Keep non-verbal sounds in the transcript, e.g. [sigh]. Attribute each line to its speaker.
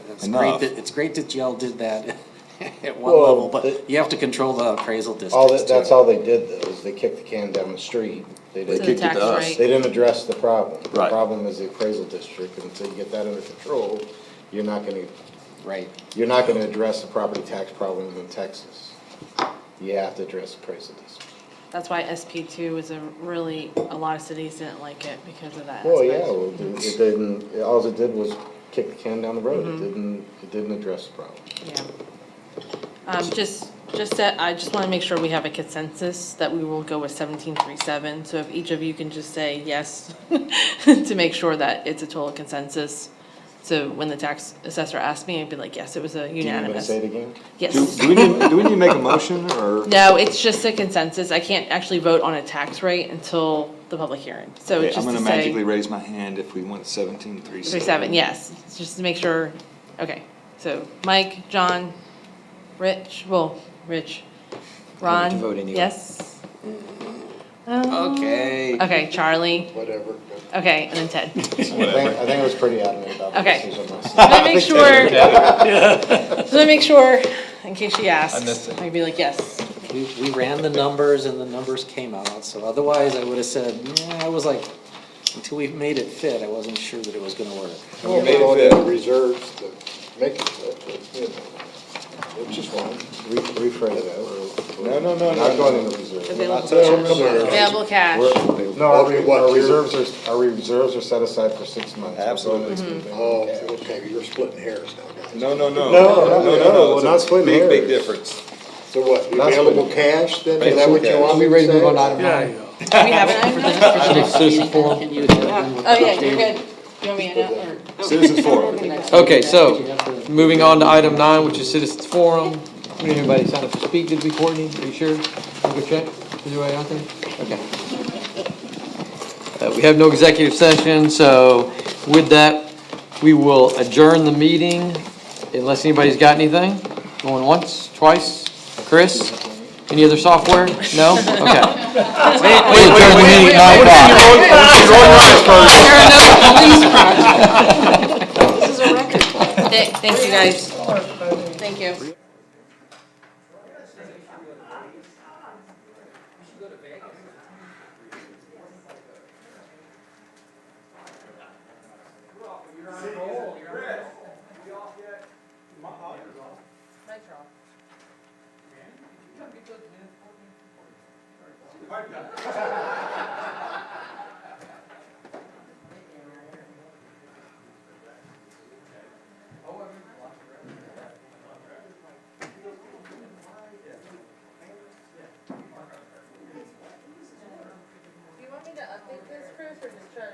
Speaker 1: It's great
Speaker 2: Enough.
Speaker 1: that, it's great that y'all did that [laughs] at one
Speaker 3: Well,
Speaker 1: level, but
Speaker 3: it-
Speaker 1: you have to control the appraisal
Speaker 3: All
Speaker 1: districts
Speaker 3: that, that's
Speaker 1: too.
Speaker 3: all they did though, is they kicked the can down the street. They
Speaker 2: They
Speaker 4: the
Speaker 3: didn't,
Speaker 2: kicked it
Speaker 4: tax
Speaker 2: to us.
Speaker 4: rate.
Speaker 3: they didn't address the problem. The
Speaker 2: Right.
Speaker 3: Problem is the appraisal district, and until you get that under control, you're not gonna,
Speaker 1: Right,
Speaker 3: you're not gonna address the property tax problem in Texas. You have to address the appraisal district.
Speaker 4: That's why SP two is a really, a lot of cities didn't like it because of that
Speaker 3: Well, yeah,
Speaker 4: aspect.
Speaker 3: well, it it didn't, all it did was kick the can down the road.
Speaker 4: Mm-hmm.
Speaker 3: It didn't, it didn't address the problem.
Speaker 4: Yeah. Um, just, just that, I just wanna make sure we have a consensus that we will go with seventeen three seven, so if each of you can just say yes [laughs] to make sure that it's a total consensus. So when the tax assessor asked me, I'd be like, yes, it was a
Speaker 3: Do you want to
Speaker 4: unanimous.
Speaker 3: say it again?
Speaker 2: Do,
Speaker 4: Yes.
Speaker 2: do we need, do we need to make a motion or?
Speaker 4: [laughs] No, it's just a consensus. I can't actually vote on a tax rate until the public hearing, so
Speaker 2: Okay,
Speaker 4: just to
Speaker 2: I'm
Speaker 4: say.
Speaker 2: gonna magically raise my hand if we went seventeen three
Speaker 4: Three
Speaker 2: seven.
Speaker 4: seven, yes, just to make sure, okay, so Mike, John, Rich, well, Rich,
Speaker 5: need
Speaker 4: Ron.
Speaker 5: to vote anyway.
Speaker 4: Yes? Uh,
Speaker 1: okay.
Speaker 4: Okay, Charlie,
Speaker 3: Whatever.
Speaker 4: okay, and then Ted.
Speaker 3: I think, I think I was pretty adamant about the
Speaker 4: Okay.
Speaker 3: decision myself.
Speaker 4: I'm gonna make sure, [laughs] I'm gonna make sure, in case she asks.
Speaker 5: I missed it.
Speaker 4: I'd be like, yes,
Speaker 1: We, we ran the numbers and the numbers came out, so otherwise I would have said, yeah, I was like, until we made it fit, I wasn't sure that it was gonna work.
Speaker 6: Well, we don't have reserves to make it fit, but, you know, which is fine.
Speaker 3: Re- Rephrase that. No, no, no,
Speaker 6: Not
Speaker 3: no,
Speaker 6: going
Speaker 3: no.
Speaker 6: into reserve.
Speaker 4: available
Speaker 6: Available
Speaker 4: cash,
Speaker 6: cash.
Speaker 4: available cash,
Speaker 3: We're- No, our, re-
Speaker 6: Okay, what,
Speaker 3: our
Speaker 6: you're-
Speaker 3: reserves are, our reserves are set aside for six months.
Speaker 2: Absolutely.
Speaker 6: Oh, okay, you're splitting hairs now, guys.
Speaker 2: No, no, no.
Speaker 3: No, no, no, we're
Speaker 2: it's a
Speaker 3: not splitting
Speaker 2: big, Big
Speaker 3: hairs.
Speaker 2: difference.
Speaker 6: So what,
Speaker 3: That's what-
Speaker 6: available cash then, is that what you
Speaker 2: Available
Speaker 6: want
Speaker 3: Are
Speaker 6: me
Speaker 3: we
Speaker 6: to
Speaker 3: ready to
Speaker 6: say?
Speaker 3: move on item nine?
Speaker 4: do we have an item nine?
Speaker 1: Can you hit it in with
Speaker 4: Oh, yeah,
Speaker 1: updated-
Speaker 4: you're good, you want me to, or?
Speaker 2: Citizens forum.
Speaker 5: Okay, so,
Speaker 1: Did you have to-
Speaker 5: moving on to item nine, which is citizens forum. Did Anybody sign up to speak, did we, Courtney? Are you sure? Can we go check? Is there anybody out there? Okay. Uh, we have no executive session, so with that, we will adjourn the meeting unless anybody's got anything. Going once, twice? Chris? Any other software? No? Okay. We adjourn the meeting at nine o'clock.
Speaker 4: Th- Thank you, guys. Thank you.